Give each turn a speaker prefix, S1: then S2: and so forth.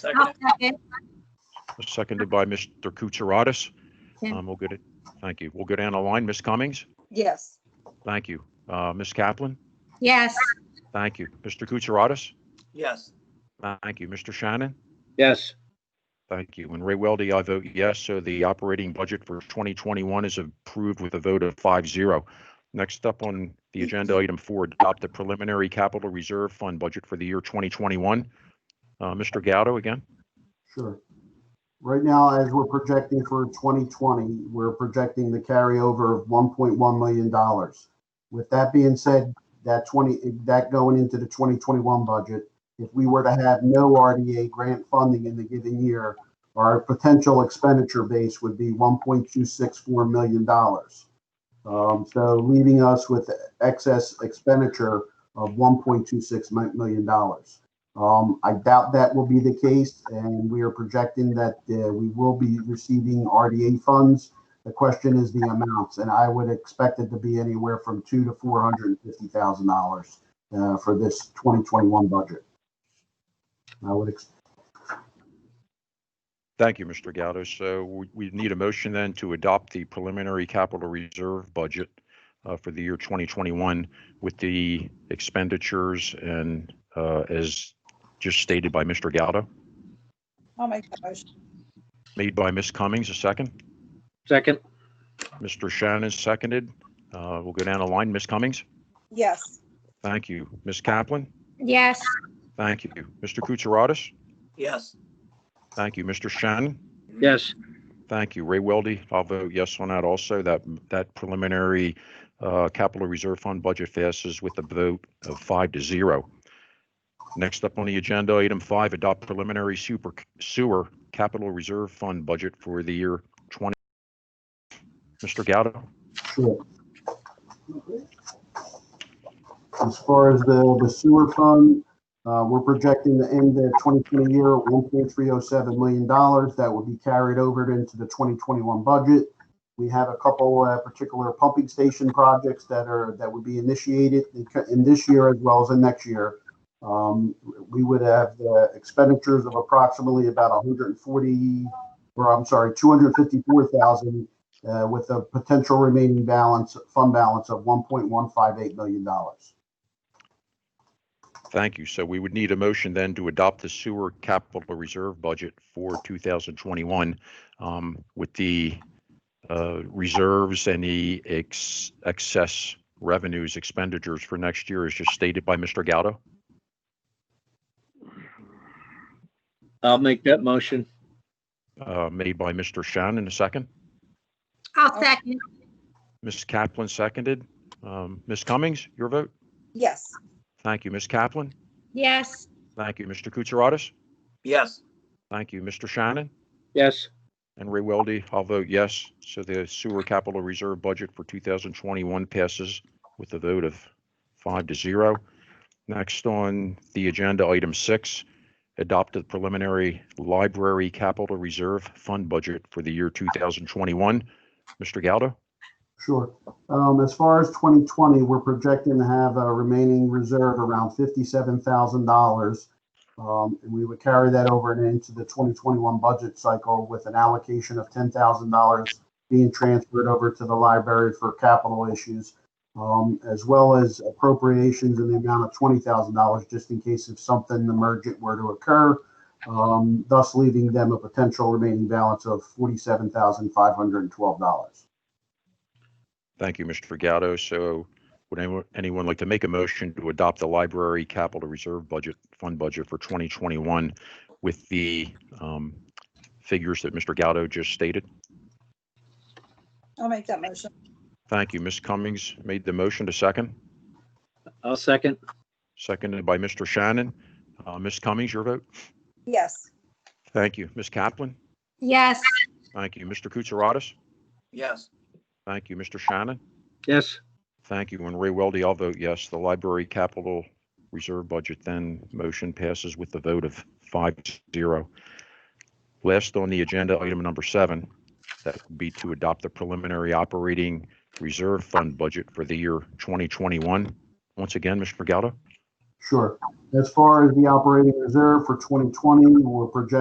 S1: Second.
S2: second.
S3: seconded by Mr. Kutsaratus.
S2: Tim.
S3: Um, We'll get it, thank you. We'll go down the line. Ms. Cummings?
S4: Yes.
S3: Thank you. Uh, Ms. Kaplan?
S2: Yes,
S3: Thank you. Mr. Kutsaratus?
S1: Yes.
S3: Thank you. Mr. Shannon?
S5: yes,
S3: Thank you. And Ray Weldy, I vote yes. So the operating budget for 2021 is approved with a vote of 5-0. Next up on the agenda, item four, adopt the preliminary capital reserve fund budget for the year 2021. Uh, Mr. Gaudo again?
S6: Sure. Right now, as we're projecting for 2020, we're projecting the carryover of $1.1 million. With that being said, that 20, that going into the 2021 budget, if we were to have no RDA grant funding in the given year, our potential expenditure base would be $1.264 million. Um, So leaving us with excess expenditure of $1.26 million. Um, I doubt that will be the case, and we are projecting that uh, we will be receiving RDA funds. The question is the amounts, and I would expect it to be anywhere from two to four hundred and fifty thousand dollars uh, for this twenty twenty-one budget. I would, ex-
S3: Thank you, Mr. Gaudo. So we- we need a motion then to adopt the preliminary capital reserve budget uh, for the year 2021 with the expenditures and uh, as just stated by Mr. Gaudo,
S4: I'll make that motion.
S3: made by Ms. Cummings, a second.
S5: second,
S3: Mr. Shannon seconded. Uh, We'll go down the line. Ms. Cummings?
S4: Yes.
S3: Thank you. Ms. Kaplan?
S2: yes,
S3: Thank you. Mr. Kutsaratus?
S1: Yes.
S3: Thank you. Mr. Shannon?
S5: yes,
S3: Thank you. Ray Weldy, I'll vote yes on that also. That, that preliminary uh, capital reserve fund budget passes with a vote of five to zero. Next up on the agenda, item five, adopt preliminary super sewer capital reserve fund budget for the year 20. Mr. Gaudo?
S6: Sure. As far as the, the sewer fund, uh, we're projecting to end the twenty twenty year at one point three oh seven million dollars. That will be carried over into the twenty twenty-one budget. We have a couple, uh, particular pumping station projects that are, that would be initiated in co- in this year as well as in next year. Um, we would have the expenditures of approximately about hundred and forty, or I'm sorry, two hundred fifty-four thousand uh, with a potential remaining balance, fund balance of $1.158 million.
S3: Thank you. So we would need a motion then to adopt the sewer capital reserve budget for 2021 um, with the uh, reserves and the ex- excess revenues expenditures for next year as just stated by Mr. Gaudo.
S5: I'll make that motion,
S3: uh, Made by Mr. Shannon, a second.
S2: I'll second,
S3: Ms. Kaplan seconded. Um, Ms. Cummings, your vote?
S4: Yes.
S3: Thank you, Ms. Kaplan.
S2: yes,
S3: Thank you, Mr. Kutsaratus.
S1: Yes.
S3: Thank you, Mr. Shannon.
S5: yes,
S3: And Ray Weldy, I'll vote yes. So the sewer capital reserve budget for 2021 passes with a vote of five to zero. Next on the agenda, item six, adopt the preliminary library capital reserve fund budget for the year 2021. Mr. Galdo?
S6: Sure. Um, As far as 2020, we're projecting to have a remaining reserve around $57,000. Um, And we would carry that over and into the 2021 budget cycle with an allocation of $10,000 being transferred over to the library for capital issues, um, as well as appropriations in the amount of $20,000 just in case if something emergent were to occur, um, thus leaving them a potential remaining balance of $47,512.
S3: Thank you, Mr. Galdo. So would anyone, anyone like to make a motion to adopt the library capital reserve budget, fund budget for 2021 with the um, figures that Mr. Galdo just stated?
S4: I'll make that motion.
S3: Thank you. Ms. Cummings made the motion to second,
S5: I'll second,
S3: seconded by Mr. Shannon. Uh, Ms. Cummings, your vote.
S4: Yes.
S3: Thank you. Ms. Kaplan?
S2: yes,
S3: Thank you. Mr. Kutsaratus?
S1: Yes.
S3: Thank you. Mr. Shannon?
S5: yes,
S3: Thank you. And Ray Weldy, I'll vote yes. The library capital reserve budget then motion passes with the vote of five to zero. Last on the agenda, item number seven, that would be to adopt the preliminary operating reserve fund budget for the year 2021. Once again, Mr. Galdo?
S6: Sure. As far as the operating reserve for 2020, we're projecting